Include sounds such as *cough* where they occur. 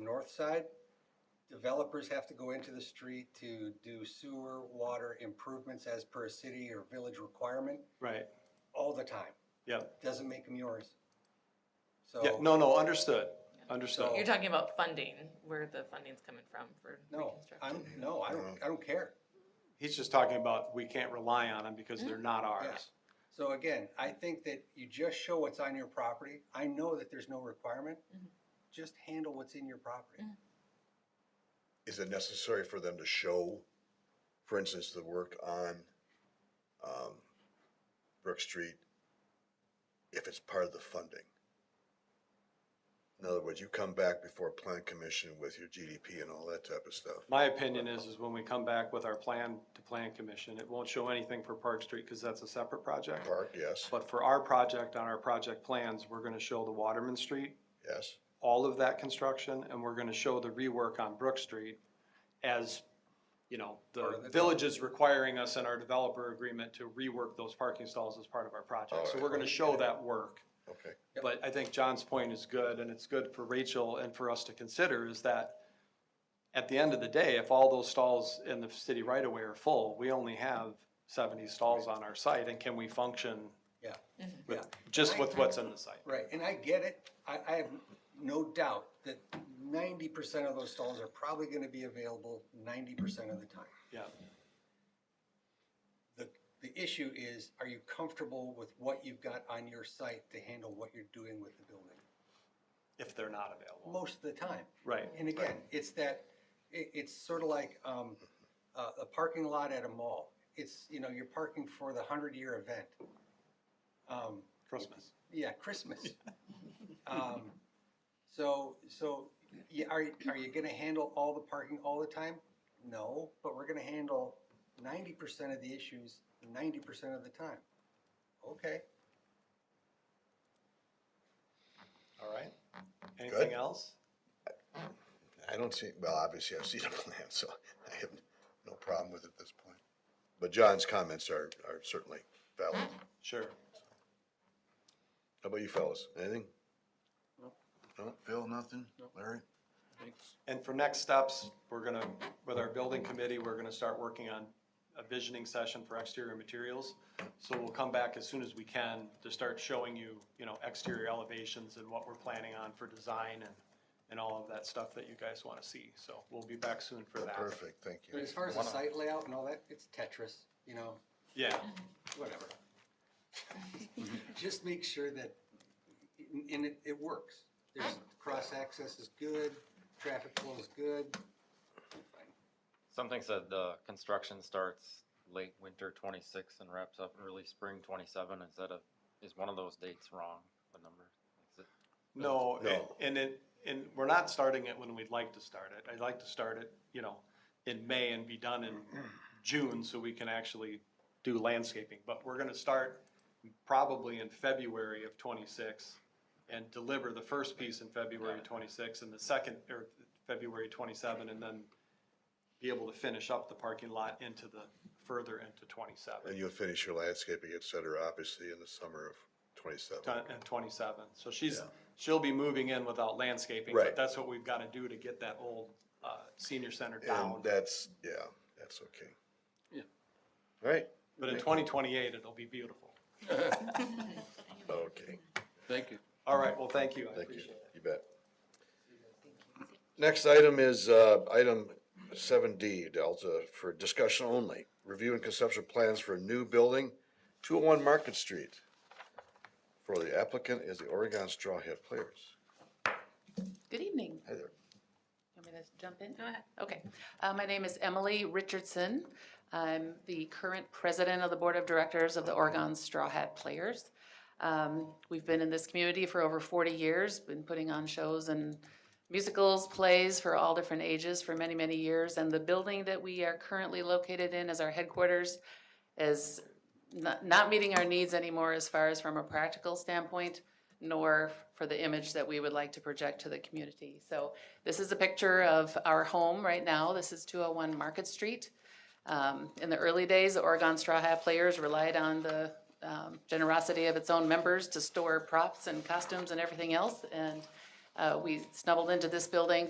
north side, developers have to go into the street to do sewer, water improvements as per a city or village requirement Right, all the time. yep. Doesn't make them yours. Yeah, So, no, no, understood, You're understood. talking about funding, where the funding's coming from for no, reconstruction. I'm, no, I don't, I don't care. He's just talking about, we can't rely on them because they're not ours. So again, I think that you just show what's on your property. I know that there's no requirement. Just handle what's in your property. Is it necessary for them to show, for instance, the work on um, Brook Street if it's part of the funding? In other words, you come back before Plan Commission with your GDP and all that type of stuff. My opinion is, is when we come back with our plan to Plan Commission, it won't show anything for Park Street because that's a separate project. Park, yes, But for our project, on our project plans, we're gonna show the Waterman Street, yes. all of that construction, and we're gonna show the rework on Brook Street as, you know, Part of the the- village is requiring us in our developer agreement to rework those parking stalls as part of our Oh, project. So Alright. we're gonna show that work. Okay. Yep. But I think John's point is good, and it's good for Rachel and for us to consider, is that at the end of the day, if all those stalls in the city right away are full, we only have seventy stalls on our site, and can we function Yeah. with, just with what's in the site? Right, and I get it. I, I have no doubt that ninety percent of those stalls are probably gonna be available ninety percent of the time. Yeah, The, the issue is, are you comfortable with what you've got on your site to handle what you're doing with the building? if they're not available, Most of the time. right? And again, it's that, it, it's sort of like, um, uh, a parking lot at a mall. It's, you know, you're parking for the hundred-year event. Um, Christmas. Yeah, Christmas. Um, So, so, yeah, are, are you gonna handle all the parking all the time? No, but we're gonna handle ninety percent of the issues ninety percent of the time. Okay, All right. Anything else? I don't see, well, obviously I've seen a *laughs* plan, so I have no problem with it at this point. But John's comments are, are certainly valid. How Sure. about you fellas? Anything? No, Phil, nothing? Larry? And for next steps, we're gonna, with our building committee, we're gonna start working on a visioning session for exterior materials. So we'll come back as soon as we can to start showing you, you know, exterior elevations and what we're planning on for design and, and all of that stuff that you guys wanna see. So we'll be back soon for that. Perfect, thank you. but as far as the site layout and all that, it's Tetris, you know, Yeah, whatever. Just make sure that, and it, it works. There's, cross-access is good, traffic flow is good. Something said the construction starts late winter twenty-six and wraps up early spring twenty-seven instead of, is one of those dates wrong, the number? Is it- no, No. and it, and we're not starting it when we'd like to start it. I'd like to start it, you know, in May and be done in June so we can actually do landscaping. But we're gonna start probably in February of twenty-six and deliver the first piece in February twenty-six and the second, or February twenty-seven, and then be able to finish up the parking lot into the, further into And twenty-seven, you'll finish your landscaping, et cetera, obviously in the summer of twenty-seven. and twenty-seven. So she's, she'll be moving in without landscaping, Right. but that's what we've gotta do to get that old, uh, senior center down. And that's, yeah, that's okay. Yeah. Right, But in twenty twenty-eight, it'll be beautiful. okay, Thank you. All right, well, thank you, I thank you, appreciate it. you bet. Next item is, uh, item seven D, Delta, for discussion only. Review and conceptual plans for a new building, two oh one Market Street. For the applicant is the Oregon Straw Hat Players. Good evening. Hi there. You want me to jump in? Go ahead. Okay. Uh, My name is Emily Richardson. I'm the current president of the Board of Directors of the Oregon Straw Hat Players. Um, We've been in this community for over 40 years, been putting on shows and musicals, plays for all different ages for many, many years. And the building that we are currently located in as our headquarters is not, not meeting our needs anymore as far as from a practical standpoint, nor for the image that we would like to project to the community. So this is a picture of our home right now. This is 201 Market Street. Um, In the early days, the Oregon Straw Hat Players relied on the um, generosity of its own members to store props and costumes and everything else. And uh, we snuggled into this building